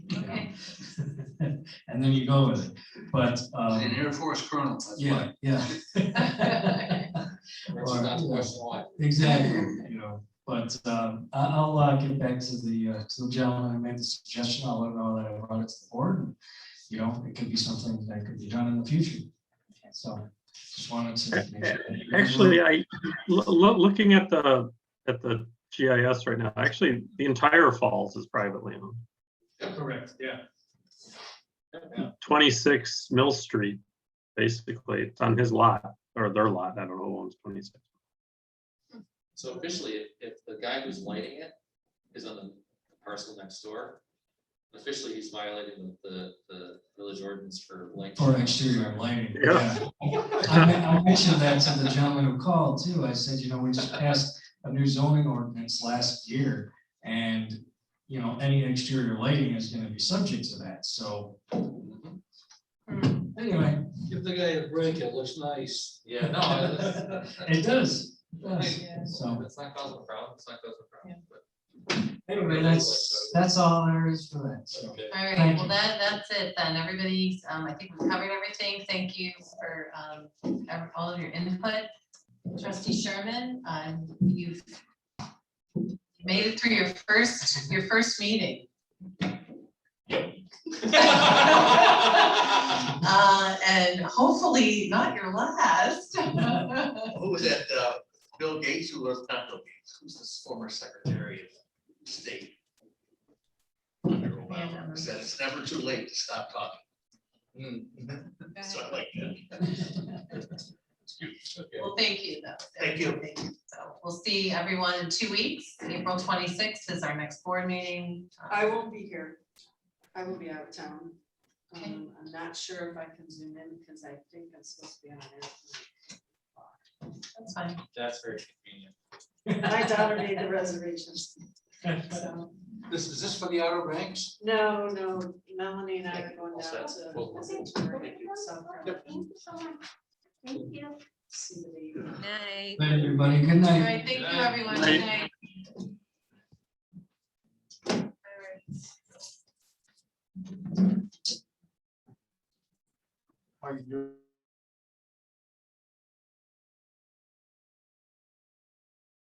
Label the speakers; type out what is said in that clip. Speaker 1: and then you go with it, but,
Speaker 2: An
Speaker 1: um,
Speaker 2: Air Force colonel, that's why.
Speaker 1: yeah, yeah. Or,
Speaker 3: not the
Speaker 1: yeah.
Speaker 3: question why.
Speaker 1: Exactly, you know, but um, I- I'll uh, get back to the, uh, to the gentleman who made the suggestion. I'll let him know that I brought it to the board. and, You know, it could be something that could be done in the future. So just wanted to. make sure that you-
Speaker 4: Actually, I, lo- lo- looking at the, at the GIS right now, actually, the entire falls is privately owned.
Speaker 1: Correct, yeah.
Speaker 4: Twenty-six Mill Street, basically, it's on his lot, or their lot, I don't know who owns twenty-six.
Speaker 3: So officially, if, if the guy who's lighting it is on the parcel next door, officially he's violating the, the, the village ordinance for light.
Speaker 1: For exterior lighting,
Speaker 4: Yeah.
Speaker 1: yeah. I men- I mentioned that to the gentleman who called too. I said, you know, we just passed a new zoning ordinance last year. And, you know, any exterior lighting is gonna be subject to that, so
Speaker 3: Mhm.
Speaker 1: anyway.
Speaker 5: Give the guy a break, it looks nice.
Speaker 3: Yeah, no, that's,
Speaker 1: It does, it does.
Speaker 3: that's,
Speaker 1: So
Speaker 3: that's not causing a problem, it's not causing a problem, but.
Speaker 1: anyway, that's, that's all there is for that. So
Speaker 5: Okay.
Speaker 6: All right,
Speaker 1: Thank
Speaker 6: well,
Speaker 1: you.
Speaker 6: that, that's it then. Everybody's, um, I think we've covered everything. Thank you for, um, ev- all of your input. Trustee Sherman, um, you've made it through your first, your first meeting. Uh, and hopefully not your last.
Speaker 7: Who was that, uh, Bill Gates, who was not Bill Gates, who's this former Secretary of State? Under Obama, Said it's never too late to stop talking, so I like that.
Speaker 6: Well, thank you though.
Speaker 7: Thank you.
Speaker 6: So we'll see everyone in two weeks. April twenty-sixth is our next board meeting.
Speaker 8: I won't be here. I will be out of town.
Speaker 6: Okay.
Speaker 8: Um, I'm not sure if I can zoom in because I think I'm supposed to be on it.
Speaker 6: That's fine.
Speaker 3: That's very convenient.
Speaker 8: My daughter made the reservations. so.
Speaker 2: This, is this for the Outer Banks?
Speaker 8: No, no, Melanie and I are going
Speaker 3: All
Speaker 8: down
Speaker 3: set. Well-
Speaker 8: to. Turkey, South Carolina, see the baby.
Speaker 9: Night.
Speaker 1: Thank you, everybody. Good
Speaker 6: All
Speaker 1: night.
Speaker 6: right, thank you, everyone.
Speaker 4: Night.
Speaker 6: Good night. All
Speaker 1: Are
Speaker 6: right.
Speaker 1: you-